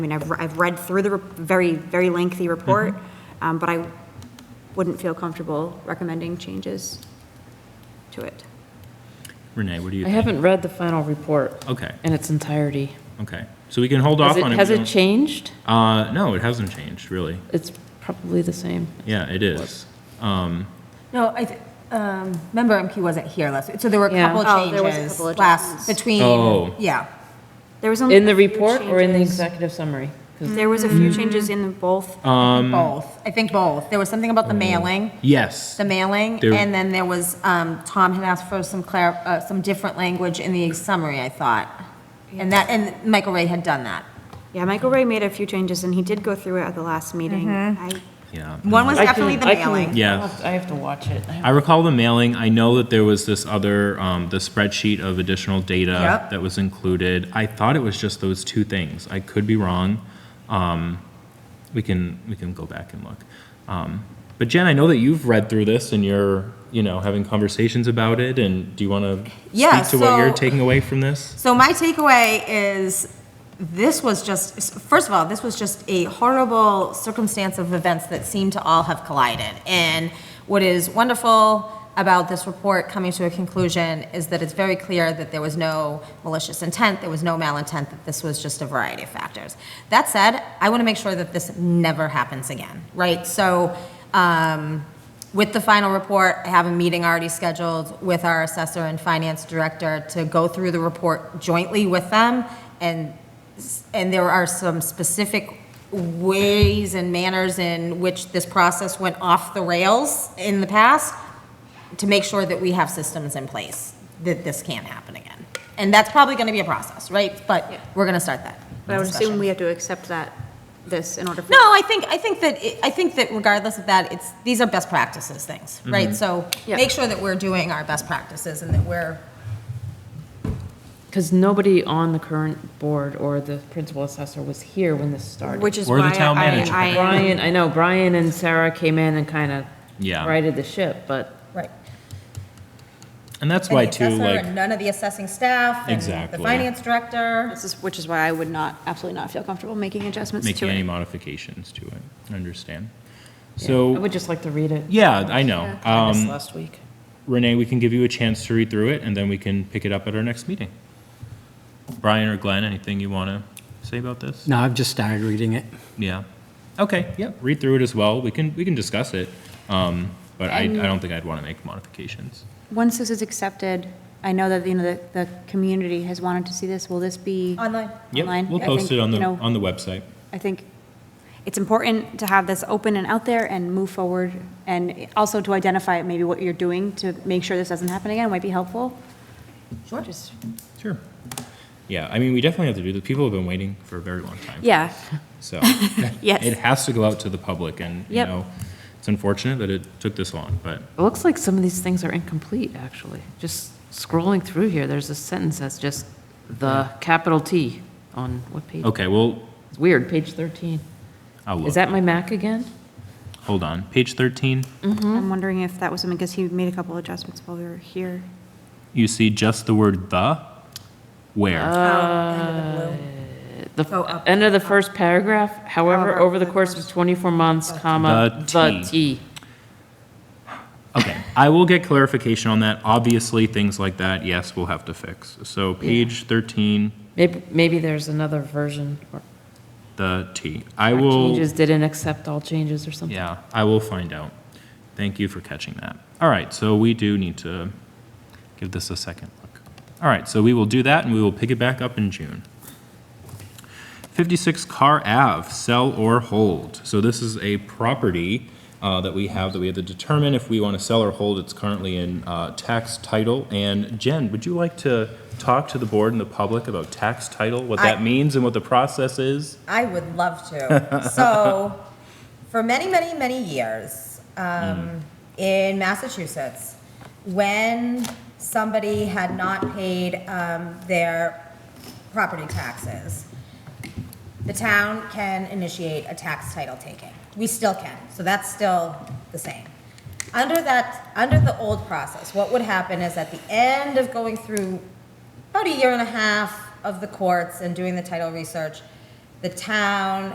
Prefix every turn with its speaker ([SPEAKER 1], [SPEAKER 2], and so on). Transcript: [SPEAKER 1] I mean, I've, re- I've read through the re- very, very lengthy report, um, but I wouldn't feel comfortable recommending changes to it.
[SPEAKER 2] Renee, what do you
[SPEAKER 3] I
[SPEAKER 2] think?
[SPEAKER 3] haven't read the final report
[SPEAKER 2] Okay,
[SPEAKER 3] in its entirety.
[SPEAKER 2] okay. So we can hold
[SPEAKER 3] Has
[SPEAKER 2] off
[SPEAKER 3] it,
[SPEAKER 2] on it.
[SPEAKER 3] has
[SPEAKER 2] We
[SPEAKER 3] it
[SPEAKER 2] don't-
[SPEAKER 3] changed?
[SPEAKER 2] Uh, no, it hasn't changed, really.
[SPEAKER 3] It's probably the same.
[SPEAKER 2] Yeah, it is. Um,
[SPEAKER 4] No, I, th- um, member MQ wasn't here last week, so there were a
[SPEAKER 3] Yeah.
[SPEAKER 4] couple
[SPEAKER 1] Oh, there was a
[SPEAKER 4] changes
[SPEAKER 1] couple of
[SPEAKER 4] last,
[SPEAKER 1] adjustments.
[SPEAKER 4] between,
[SPEAKER 2] Oh.
[SPEAKER 4] yeah.
[SPEAKER 1] There was only.
[SPEAKER 3] In the
[SPEAKER 1] a few
[SPEAKER 3] report or in the
[SPEAKER 1] changes-
[SPEAKER 3] executive summary? 'Cause
[SPEAKER 1] There was a few changes in both.
[SPEAKER 3] Um,
[SPEAKER 4] Both, I think both. There was something about
[SPEAKER 3] Oh.
[SPEAKER 4] the mailing,
[SPEAKER 2] yes.
[SPEAKER 4] the mailing,
[SPEAKER 2] There-
[SPEAKER 4] and then there was, um, Tom had asked for some clar, uh, some different language in the summary, I thought. And that, and Michael Ray had done that.
[SPEAKER 1] Yeah, Michael Ray made a few changes, and he did go through it at the last meeting. I-
[SPEAKER 2] Yeah.
[SPEAKER 4] One was
[SPEAKER 3] I can-
[SPEAKER 4] definitely the
[SPEAKER 3] I can-
[SPEAKER 4] mailing.
[SPEAKER 2] Yeah.
[SPEAKER 3] I'll have to- I have to watch it. I have-
[SPEAKER 2] I recall the mailing. I know that there was this other, um, the spreadsheet of additional data
[SPEAKER 4] Yep.
[SPEAKER 2] that was included. I thought it was just those two things. I could be wrong. Um, we can, we can go back and look. Um, but Jen, I know that you've read through this and you're, you know, having conversations about it and do you want to
[SPEAKER 4] Yeah,
[SPEAKER 2] speak to what you're
[SPEAKER 4] so-
[SPEAKER 2] taking away from this?
[SPEAKER 4] So my takeaway is this was just, first of all, this was just a horrible circumstance of events that seem to all have collided. And what is wonderful about this report coming to a conclusion is that it's very clear that there was no malicious intent, there was no malintent, that this was just a variety of factors. That said, I want to make sure that this never happens again, right? So, um, with the final report, I have a meeting already scheduled with our assessor and finance director to go through the report jointly with them. And, and there are some specific ways and manners in which this process went off the rails in the past to make sure that we have systems in place that this can't happen again. And that's probably going to be a process, right? But we're going to start that.
[SPEAKER 1] But I would
[SPEAKER 4] discussion.
[SPEAKER 1] assume we have to accept that, this, in order for.
[SPEAKER 4] No, I think, I think that, it- I think that regardless of that, it's, these are best practices things,
[SPEAKER 2] Mm-hmm.
[SPEAKER 4] right? So
[SPEAKER 1] Yeah.
[SPEAKER 4] make sure that we're doing our best practices and that we're,
[SPEAKER 3] Because nobody on the current board or the principal assessor was here when this started.
[SPEAKER 1] Which is
[SPEAKER 2] Or the
[SPEAKER 1] why
[SPEAKER 2] town
[SPEAKER 1] I,
[SPEAKER 2] manager.
[SPEAKER 1] I am
[SPEAKER 3] Brian, I know, Brian and Sarah came in and kind of
[SPEAKER 2] Yeah.
[SPEAKER 3] righted the ship, but
[SPEAKER 4] right.
[SPEAKER 2] And that's why
[SPEAKER 4] And the
[SPEAKER 2] too,
[SPEAKER 4] assessor
[SPEAKER 2] like.
[SPEAKER 4] and None of the assessing staff and the
[SPEAKER 2] Exactly.
[SPEAKER 4] finance director.
[SPEAKER 1] This is, which is why I would not, absolutely not feel comfortable making adjustments to
[SPEAKER 2] making any
[SPEAKER 1] it.
[SPEAKER 2] modifications to it. I understand.
[SPEAKER 3] I
[SPEAKER 2] So,
[SPEAKER 3] would just like to read it.
[SPEAKER 2] yeah, I know.
[SPEAKER 3] I missed
[SPEAKER 2] Um,
[SPEAKER 3] last week.
[SPEAKER 2] Renee, we can give you a chance to read through it, and then we can pick it up at our next meeting. Brian or Glenn, anything you want to say about this?
[SPEAKER 5] No, I've just started reading it.
[SPEAKER 2] Yeah. Okay, yeah, read through it as well. We can, we can discuss it. Um, But I, I don't think I'd want to make modifications.
[SPEAKER 1] Once this is accepted, I know that, you know, the, the community has wanted to see this. Will this be?
[SPEAKER 4] Online.
[SPEAKER 2] Yep,
[SPEAKER 1] Online?
[SPEAKER 2] we'll
[SPEAKER 1] I think,
[SPEAKER 2] post it on the,
[SPEAKER 1] you know,
[SPEAKER 2] on the website.
[SPEAKER 1] I think it's important to have this open and out there and move forward, and also to identify maybe what you're doing to make sure this doesn't happen again might be helpful.
[SPEAKER 4] Sure.
[SPEAKER 1] Just-
[SPEAKER 2] Sure. Yeah, I mean, we definitely have to do that. People have been waiting for a very long time.
[SPEAKER 1] Yeah,
[SPEAKER 2] So
[SPEAKER 1] Yes.
[SPEAKER 2] it has to go out to the public and, you
[SPEAKER 1] Yep.
[SPEAKER 2] know, it's unfortunate that it took this long, but
[SPEAKER 3] It looks like some of these things are incomplete, actually. Just scrolling through here, there's a sentence that's just the capital T on what page?
[SPEAKER 2] okay, well,
[SPEAKER 3] It's weird, page 13.
[SPEAKER 2] I'll
[SPEAKER 3] Is
[SPEAKER 2] look.
[SPEAKER 3] that my Mac again?
[SPEAKER 2] Hold on. Page 13,
[SPEAKER 1] I'm wondering if that was him, because he made a couple adjustments while we were here.
[SPEAKER 2] you see just the word the, where?
[SPEAKER 4] Go
[SPEAKER 3] The
[SPEAKER 4] up.
[SPEAKER 3] end of the first paragraph, however, over the course of 24 months, comma,
[SPEAKER 2] The
[SPEAKER 3] the
[SPEAKER 2] T.
[SPEAKER 3] T.
[SPEAKER 2] Okay, I will get clarification on that. Obviously, things like that, yes, we'll have to fix. So page 13,
[SPEAKER 3] Maybe, maybe there's another version or
[SPEAKER 2] the T. I
[SPEAKER 3] or
[SPEAKER 2] will,
[SPEAKER 3] changes didn't accept all changes or something.
[SPEAKER 2] yeah, I will find out. Thank you for catching that. All right, so we do need to give this a second look. All right, so we will do that and we will pick it back up in June. 56 Car Ave, sell or hold. So this is a property uh, that we have, that we have to determine if we want to sell or hold. It's currently in uh, tax title. And Jen, would you like to talk to the board and the public about tax title, what
[SPEAKER 4] I-
[SPEAKER 2] that means and what the process is?
[SPEAKER 4] I would love to. So, for many, many, many years
[SPEAKER 2] Mm.
[SPEAKER 4] um, in Massachusetts, when somebody had not paid um, their property taxes, the town can initiate a tax title taking. We still can, so that's still the same. Under that, under the old process, what would happen is at the end of going through about a year and a half of the courts and doing the title research, the town